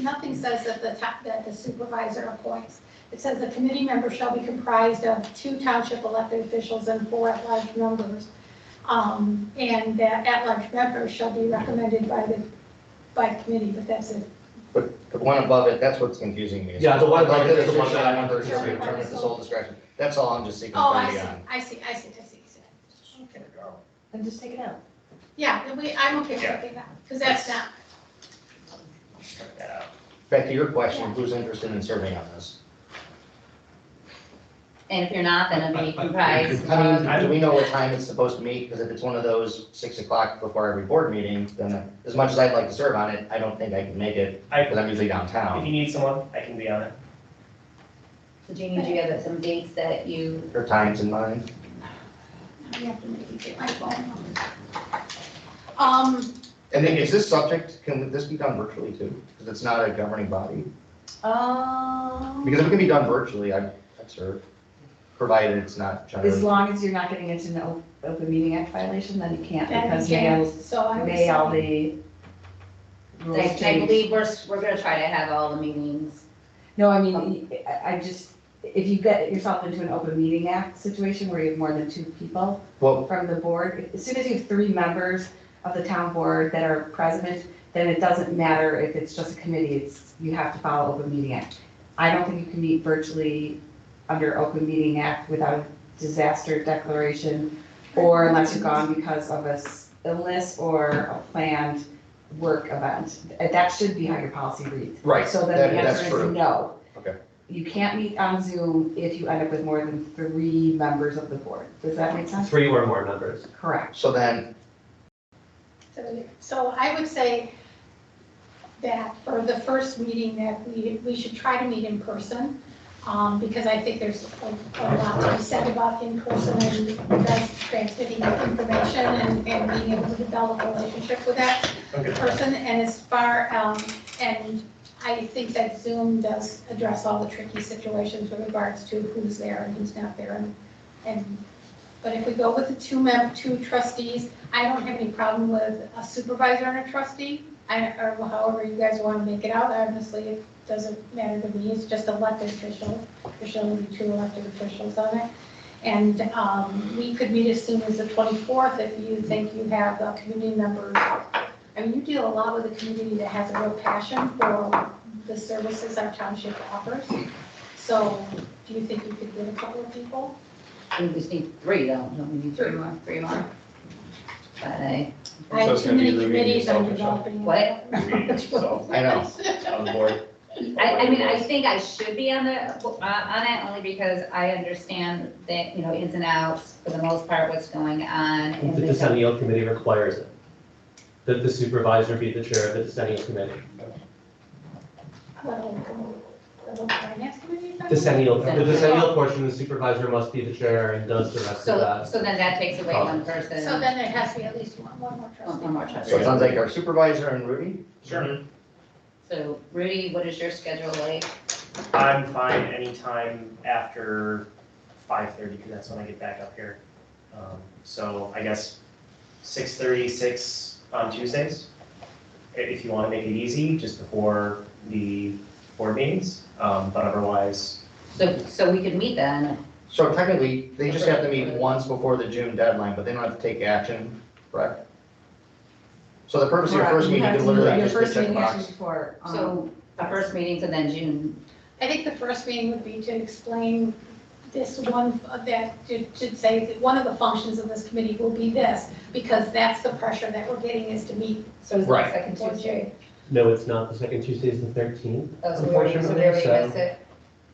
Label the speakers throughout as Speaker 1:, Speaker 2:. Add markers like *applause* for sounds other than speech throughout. Speaker 1: nothing says that the, ta- that the supervisor appoints. It says the committee member shall be comprised of two township elected officials and four at-large members. Um, and that at-large members shall be recommended by the, by committee, but that's it.
Speaker 2: But the one above it, that's what's confusing me.
Speaker 3: Yeah, the one above it is the one
Speaker 2: Elected
Speaker 3: that I-
Speaker 2: officials shall be determined at the sole discretion. That's all I'm just seeking
Speaker 1: Oh,
Speaker 2: from
Speaker 1: I see,
Speaker 2: beyond.
Speaker 1: I see, I see, I see, I see. Okay.
Speaker 4: And just take it out.
Speaker 1: Yeah, then we, I'm okay with taking that, because that's not,
Speaker 2: Back to your question, who's interested in serving on this?
Speaker 4: And if you're not, then it'll be
Speaker 3: I- I-
Speaker 4: comprised
Speaker 2: I
Speaker 3: Um,
Speaker 4: of,
Speaker 2: mean, do we know what time it's supposed to meet? Because if it's one of those six o'clock before every board meeting, then as much as I'd like to serve on it, I don't think I can make it
Speaker 5: I,
Speaker 2: because I'm usually
Speaker 5: if
Speaker 2: downtown.
Speaker 5: you need someone, I can be on it.
Speaker 4: so Jeannie, do you have some dates that you,
Speaker 2: Or times in mind.
Speaker 1: we have to maybe get my phone. out. Um,
Speaker 2: And then is this subject, can this be done virtually too? Because it's not a governing body.
Speaker 4: um,
Speaker 6: Um,
Speaker 2: Because if it can be done virtually, I'd, I'd serve, provided it's not
Speaker 6: As
Speaker 2: generally.
Speaker 6: long as you're not getting into an open meeting act violation, then you can't
Speaker 1: that
Speaker 6: because
Speaker 1: is,
Speaker 6: may,
Speaker 1: so I would
Speaker 6: may all
Speaker 1: say,
Speaker 6: the
Speaker 4: I
Speaker 6: rules
Speaker 4: I
Speaker 6: change.
Speaker 4: believe we're, s- we're gonna try to have all the meetings.
Speaker 6: No, I mean, I, I just, if you get yourself into an open meeting act situation where you have more than two people
Speaker 2: Well,
Speaker 6: from the board, as soon as you have three members of the town board that are president, then it doesn't matter if it's just a committee, it's, you have to follow open meeting act. I don't think you can meet virtually under open meeting act without a disaster declaration or unless you're gone because of a s- illness or a planned work event. Uh, That should be how your policy reads.
Speaker 2: right,
Speaker 6: So then the
Speaker 2: that- that's
Speaker 6: answer
Speaker 2: true.
Speaker 6: is no.
Speaker 2: Okay.
Speaker 6: You can't meet on Zoom if you end up with more than three members of the board. Does that make sense?
Speaker 3: Three or more members.
Speaker 6: Correct.
Speaker 2: So then,
Speaker 1: so- so I would say that for the first meeting that we, we should try to meet in person, um, because I think there's a a lot to be said about in person and that's transmitting information and, and being able to develop a relationship with that.
Speaker 5: Okay.
Speaker 1: person, and as far, um, and I think that Zoom does address all the tricky situations with regards to who's there and who's not there, and, and, but if we go with the two mem, two trustees, I don't have any problem with a supervisor and a trustee, I, or however you guys want to make it out, honestly, it doesn't matter to me, it's just elected officials, there should only be two elected officials on it. And, um, we could meet as soon as the twenty-fourth if you think you have uh community members I mean, you deal a lot with a community that has a real passion for the services our township offers. So do you think you could get a couple of people?
Speaker 4: We just need three, don't, don't we need three more, three more? But I,
Speaker 1: I have
Speaker 7: it's
Speaker 1: too
Speaker 7: gonna be
Speaker 1: many
Speaker 7: reading
Speaker 1: committees I'm
Speaker 7: yourself,
Speaker 1: developing.
Speaker 4: What?
Speaker 1: *laughs*
Speaker 2: I know.
Speaker 7: on the board.
Speaker 4: I, I mean, I think I should be on the, uh, on it only because I understand that, you know, ins and outs, for the most part, what's going on. and
Speaker 3: The decennial committee requires it, that the supervisor be the chair of the decennial committee.
Speaker 1: Well, The finance committee?
Speaker 3: Decennial, the decennial portion, the supervisor must be the chair and does the rest of
Speaker 4: So,
Speaker 3: that.
Speaker 4: so then that takes away one person.
Speaker 1: So then there has to be at least one, one more
Speaker 4: One
Speaker 1: trustee.
Speaker 4: one more
Speaker 2: so it
Speaker 4: trustee.
Speaker 2: sounds like our supervisor and Rudy?
Speaker 5: Sure.
Speaker 4: So Rudy, what is your schedule like?
Speaker 5: I'm fine anytime after five thirty, because that's when I get back up here. Um, So I guess six thirty, six on Tuesdays, i- if you want to make it easy, just before the board meetings. Um, But otherwise,
Speaker 4: So, so we could meet then.
Speaker 2: So technically, they just have to meet once before the June deadline, but they don't have to take action, correct? So the purpose of your first meeting is literally
Speaker 6: Your
Speaker 2: just to
Speaker 6: first
Speaker 2: check
Speaker 6: meeting actually
Speaker 2: box.
Speaker 6: before, um,
Speaker 4: So the first meeting's and then June.
Speaker 1: I think the first meeting would be to explain this one, uh, that should should say that one of the functions of this committee will be this, because that's the pressure that we're getting is to meet.
Speaker 4: So it's the
Speaker 2: Right.
Speaker 4: second Tuesday.
Speaker 3: No, it's not. The second Tuesday is the thirteenth,
Speaker 4: Oh, so we already, so we already
Speaker 3: Unfortunately, so-
Speaker 4: missed it.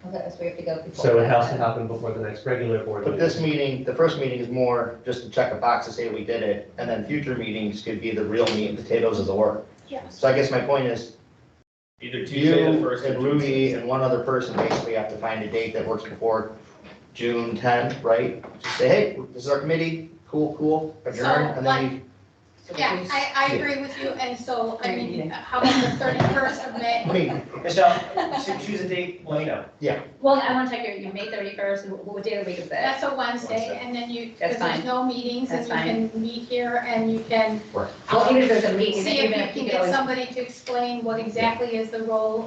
Speaker 4: Okay, so we have to go before.
Speaker 3: so it
Speaker 4: that
Speaker 3: has to
Speaker 4: then.
Speaker 3: happen before the next regular board
Speaker 2: But
Speaker 3: meeting.
Speaker 2: this meeting, the first meeting is more just to check a box to say we did it, and then future meetings could be the real meat and potatoes of the work.
Speaker 1: Yes.
Speaker 2: So I guess my point is,
Speaker 7: Either Tuesday, the
Speaker 2: you
Speaker 7: first. or
Speaker 2: and
Speaker 7: Tuesday.
Speaker 2: Rudy and one other person basically have to find a date that works before June tenth, right? Just Say, hey, this is our committee, cool, cool, adjourn, and then
Speaker 1: Yeah, I, I agree with you, and so, I mean, how about the thirty-first of May?
Speaker 2: Wait,
Speaker 5: Michelle, choo- choose a date, let me know.
Speaker 4: *laughs* Well, I want to check your, you May thirty-first, what day of the week is that?
Speaker 1: That's a Wednesday, and then you,
Speaker 4: That's
Speaker 1: because there's
Speaker 4: fine.
Speaker 1: no meetings, and
Speaker 4: That's
Speaker 1: you can meet here, and you can
Speaker 4: Well, even if there's a meeting,
Speaker 1: see
Speaker 4: even if
Speaker 1: if
Speaker 4: you
Speaker 1: you can
Speaker 4: could always
Speaker 1: get somebody to explain what exactly is the role